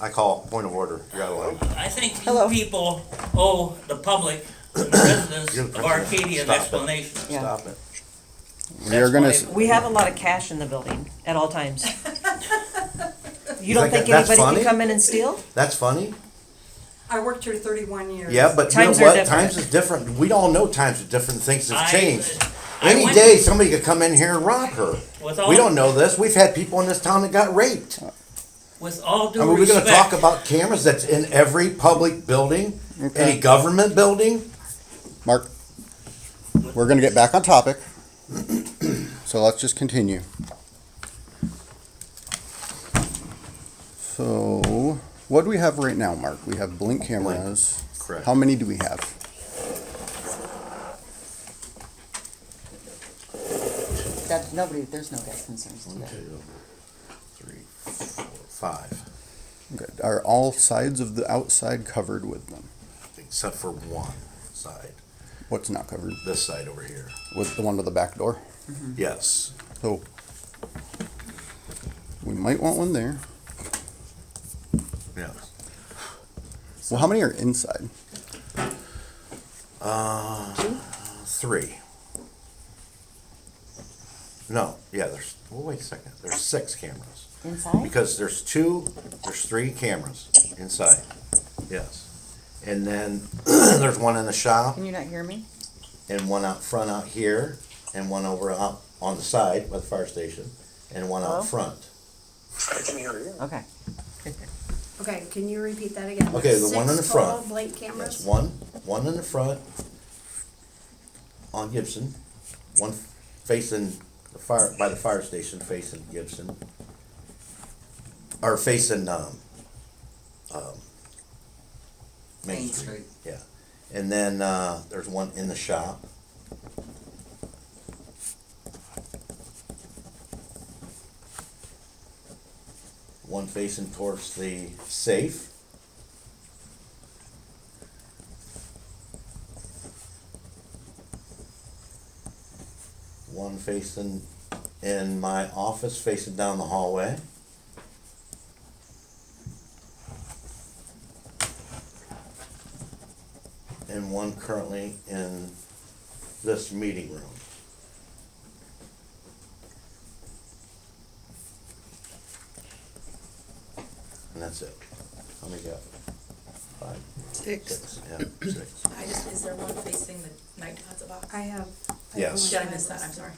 I call point of order. You're out of line. I think Hello. you people owe the public, and the residents You're the of president. Arcadia an Stop it. explanation. Yeah. Stop it. We are gonna, That's s- We have a lot of cash in the building at all times. You You don't think think that- that's anybody funny? can come in and steal? That's funny. I worked here thirty-one years. Yeah, but Times you are know what? different. Times is different. We all know times are different. Things have I- changed. I Any went- day, somebody could come in here and rob her. With all- we don't know this. We've had people in this town that got raped. With all I due mean, we're going to talk respect, about cameras that's in every public building, any Okay. government building. Mark, we're gonna get back on topic. So let's just continue. So, what do we have right now, Mark? We have blink cameras. Correct. How many do we have? That, nobody, there's no guest concerns One, today. two, three, four, five, Okay, Are all sides of the outside covered with them? except for one side, What's not covered? this side over here. With the one to the back door? Mm-hmm. Yes. So, we might want one there. Yeah. Well, how many are inside? Uh, three. No, yeah, there's, well, wait a second, there's six cameras. Inside? Because there's two, there's three cameras inside, yes. And then there's one in the shop Can you not hear me? and one out front out here and one over out on the side by the fire station and one Hello? out front. Okay. Okay, can you repeat that again? Okay, the one in the front. Six total blank That's cameras? one, one in the front on Gibson, one facing the fire, by the fire station facing Gibson. Or facing, um, um, Main Street. Yeah, and then, uh, there's one in the shop. One facing towards the safe. one facing in my office facing down the hallway. And one currently in this meeting room. And that's it. How many got? Five? Six. Yeah, six. I just, is there one facing the night deposit box? I have. I Yes. Did only I miss have- that? I'm sorry.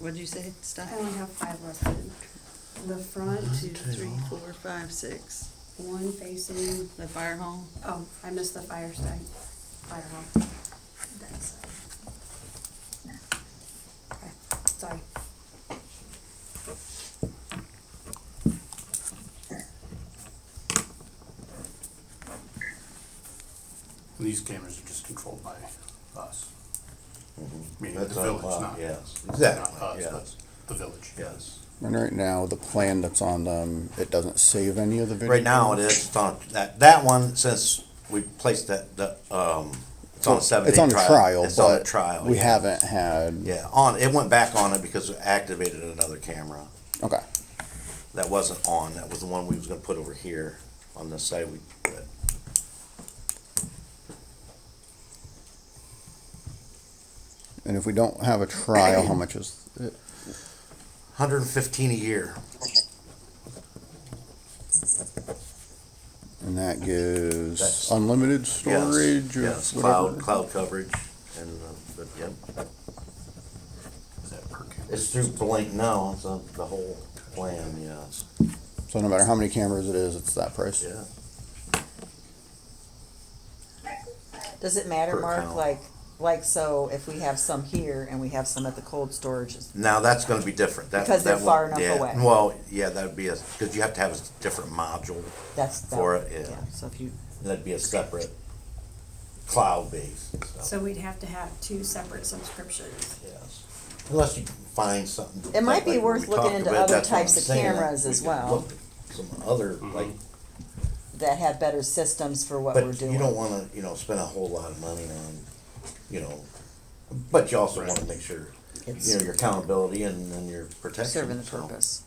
What did you say? Stop. I only have five listed. The front, One, two, three, four, five, six. one facing, The fire hall. oh, I missed the fire side, fire hall. That side. Okay, Sorry. These cameras are just controlled by us. Mm-hmm. Meaning the That's our village, lot, not, not Yes, us, exactly, but yes, the village. yes. And right now, the plan that's on them, it doesn't save any of the video. Right now it is, it's on, that, that one, since we placed that, the, um, it's on a seven day It's on trial. a trial, It's on a but trial. we yeah. haven't had, Yeah, on, it went back on it because we activated another camera okay. that wasn't on, that was the one we was gonna put over here on this side we, but And if we don't have a trial, how much is it? hundred and fifteen a year. And that gives That's- unlimited Yes, storage of Yes, cloud, whatever. cloud coverage and, uh, but, yep, Is that per camera? it's through Blink now, it's on the whole plan, yes, So no matter how many cameras it is, it's that price. yeah. Does it matter, Per Mark, account. like, like, so if we have some here and we have some at the cold storage, is- Now, that's gonna be different. That- Because that they're far won't- enough yeah. away. Well, yeah, that'd be a, because you have to have a s- different module, that's. that- For it, yeah. So if you, that'd be a separate cloud base and stuff. So we'd have to have two separate subscriptions. Yes. Unless you find something. It might be like we worth looking talked into about, other that's what I'm types of saying, that cameras we as could well. look at Some other, Mm-hmm. like, that have better systems for what we're but you don't doing. wanna, you know, spend a whole lot of money on, you know, but you also wanna make sure, you It's know, your accountability and, and your protection. serving the so. purpose.